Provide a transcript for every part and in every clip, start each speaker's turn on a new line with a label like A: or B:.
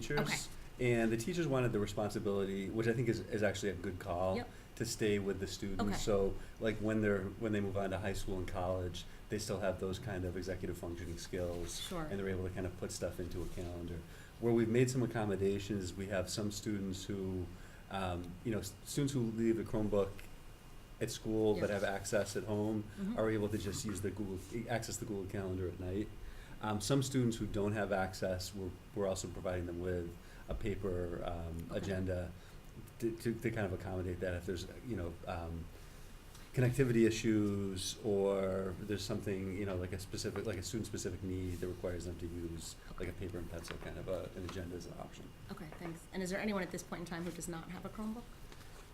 A: teachers. And the teachers wanted the responsibility, which I think is, is actually a good call,
B: Yep.
A: to stay with the
B: Okay.
A: students. So like when they're, when they move on to high school and college, they still have those kind of executive functioning skills.
B: Sure.
A: And they're able to kind of put stuff into a calendar. Where we've made some accommodations, we have some students who, um, you know, s- students who leave the Chromebook at school but
B: Yes.
A: have access at home
B: Mhm.
A: are able to just use the Google, access the Google Calendar at night. Um, some students who don't have access, we're, we're also providing them with a paper, um,
B: Okay.
A: agenda to, to, to kind of accommodate that if there's, you know, um, connectivity issues or there's something, you know, like a specific, like a student-specific need that requires them to use like a paper and pencil kind of a, an agenda as an option.
B: Okay, thanks. And is there anyone at this point in time who does not have a Chromebook?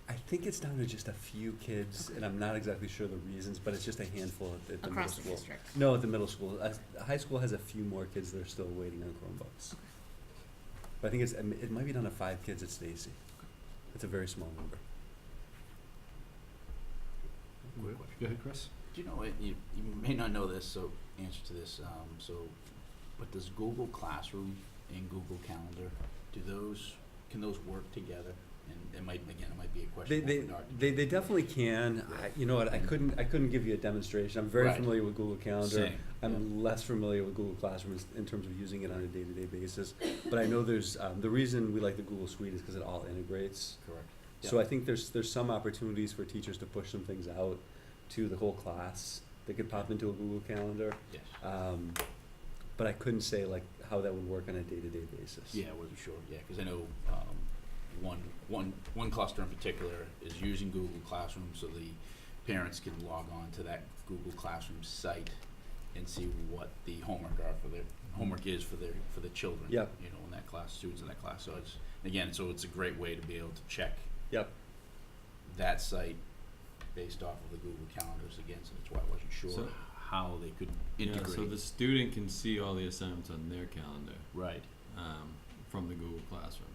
A: I think it's down to just a few kids, and I'm not exactly sure the reasons, but it's just a handful at the, at the middle
B: Across the
A: school.
B: district?
A: No, at the middle school. Uh, high school has a few more kids that are still waiting on Chromebooks.
B: Okay.
A: But I think it's, it might be down to five kids at Stacy. It's a very small number.
C: Go ahead, Chris.
D: Do you know what, you, you may not know this, so answer to this, um, so, but does Google Classroom and Google Calendar, do those, can those work together? And it might, again, it might be a
A: They,
D: question.
A: they,
D: for Bernard.
A: they, they definitely can. I, you know what, I couldn't, I couldn't give you a demonstration. I'm very
D: Mm-hmm. Right.
A: familiar with Google Calendar. um,
D: Same, yeah.
A: I'm less familiar with Google Classroom is- in terms of using it on a day-to-day basis. But I know there's, um, the reason we like the Google Suite is because it all integrates.
D: Correct.
A: So
D: Yeah.
A: I think there's, there's some opportunities for teachers to push some things out to the whole class that could pop into a Google Calendar.
D: Yes,
A: Um, but I couldn't say like how that would work on a day-to-day basis.
D: yeah, I wasn't sure, yeah, cause I know, um, one, one, one cluster in particular is using Google Classroom, so the parents can log on to that Google Classroom site and see what the homework are for their, homework is for their, for the children.
A: Yep.
D: You know, in that class, students in that class, so it's, again, so it's a great way to be able to check
A: Yep.
D: that site based off of the Google calendars again, so that's why I wasn't sure
E: So-
D: how they could
E: Yeah,
D: integrate.
E: so the student can see all the assignments on their calendar
D: Right,
E: um, from the Google Classroom.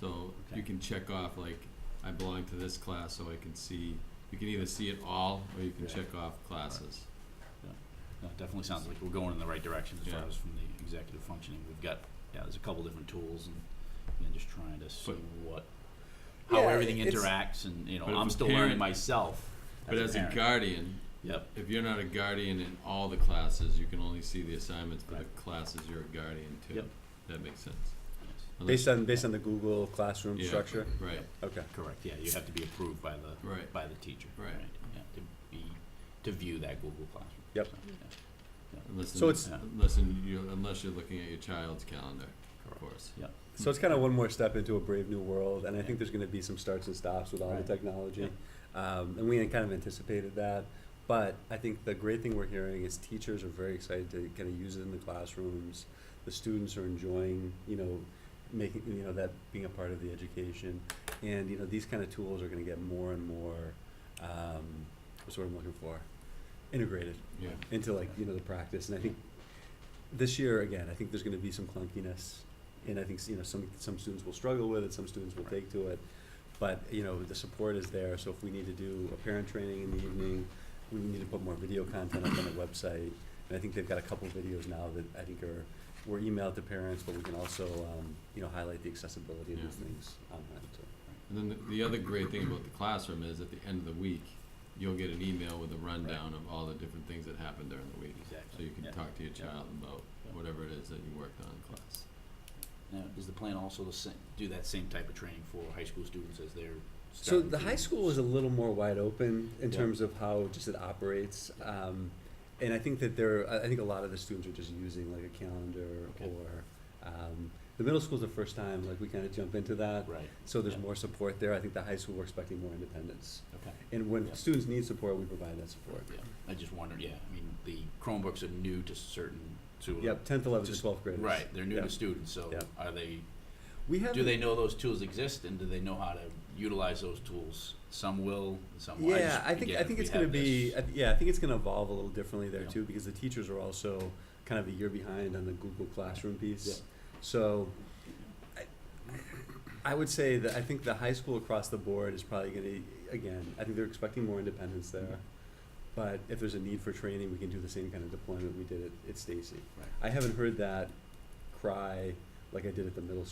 E: So
D: Okay.
E: you can check off like I belong to this class, so I can see. You can either see it all, or you can
D: Yeah.
E: check off classes.
D: No, it definitely sounds like we're going in the right direction as far
E: Yeah.
D: as from the executive functioning, we've got, yeah, there's a couple different tools and, and then just trying to see
E: But-
D: what, how
A: Yeah,
D: everything
A: it's-
D: interacts and, you know,
E: But if
D: I'm
E: a
D: still learning
E: parent-
D: myself
E: But as a
D: parent.
E: guardian,
D: Yep,
E: if you're not a guardian in all the classes, you can only see the assignments for
D: Right.
E: the classes you're a guardian to.
D: Yep.
E: That makes sense.
D: yes,
E: Unless-
A: Based on, based on the Google Classroom
E: Yeah.
A: structure?
E: Right,
A: Okay.
D: correct, yeah, you have to be approved by the,
E: right.
D: by the teacher, right,
E: Right.
D: yeah, to be, to view that Google Classroom.
A: Yep.
D: So, yeah,
E: Unless
A: So
E: in-
A: it's-
D: Yeah.
E: unless in, you unless you're looking at your child's calendar, of course.
A: So it's kind of one more step into a brave new world, and I think there's going to be some starts and stops with all
D: Right.
A: the technology. Um, and we had kind of anticipated that. But I think the great thing we're hearing is teachers are very excited to kind of use it in the classrooms. The students are enjoying, you know, making, you know, that being a part of the education. And, you know, these kind of tools are going to get more and more, um, what's the word I'm looking for? Integrated
E: Yeah.
A: into like you know the practice and i think this year again i think there's going to be some clunkiness and i think you know some some students will struggle with it some students will take to it but you know the support is there so if we need to do a parent training in the evening we need to put more video content up on the website and i think they've got a couple videos now that i think are were emailed to parents but we can also um, you know highlight the accessibility of
E: Yeah.
A: these things online so
E: And then the, the other great thing about the classroom is at the end of the week, you'll get an email with a rundown of all the different things that happened during the week. So
D: Exactly.
E: you can
D: Yeah.
E: talk to your
D: Yeah.
E: child about
D: Yeah.
E: whatever it is that you worked on in class.
D: Now, is the plan also to sa- do that same type of training for high school students as they're
A: So
D: starting
A: the
D: to-
A: high school is a little more wide open in
D: Yeah.
A: terms of how just it operates. Um, and I think that there, I I think a lot of the students are just using like a calendar
D: Okay.
A: or, um, the middle school's the first time, like we kind of jump into that.
D: Right,
A: So there's
D: Yeah.
A: more support there. I think the high school, we're expecting more independence.
D: okay.
A: And when
D: Yeah.
A: students need support, we provide that support.
D: Yeah, I just wondered, yeah, I mean, the Chromebooks are new to certain, to.
A: Yep, tenth, eleventh, and
D: Just-
A: twelfth graders.
D: Right, they're new
A: Yeah.
D: to students, so
A: Yeah.
D: are they,
A: We have.
D: do they know those tools exist and do they know how to utilize those tools? Some will, some won't.
A: Yeah,
D: just-
A: I think,
D: again,
A: I
D: if
A: think
D: we
A: it's gonna
D: have
A: be,
D: this-
A: I th- yeah, I think it's gonna evolve a little differently there
D: Yeah.
A: too, because the teachers are also kind of a year behind on the Google Classroom
D: Yeah.
A: piece. So, I, I would say that I think the high school across the board is probably gonna, again, I think they're expecting more independence there.
D: Mm-hmm.
A: But if there's a need for training, we can do the same kind of deployment we did at, at Stacy.
D: Right.
A: I haven't heard that cry like I did at the middle school.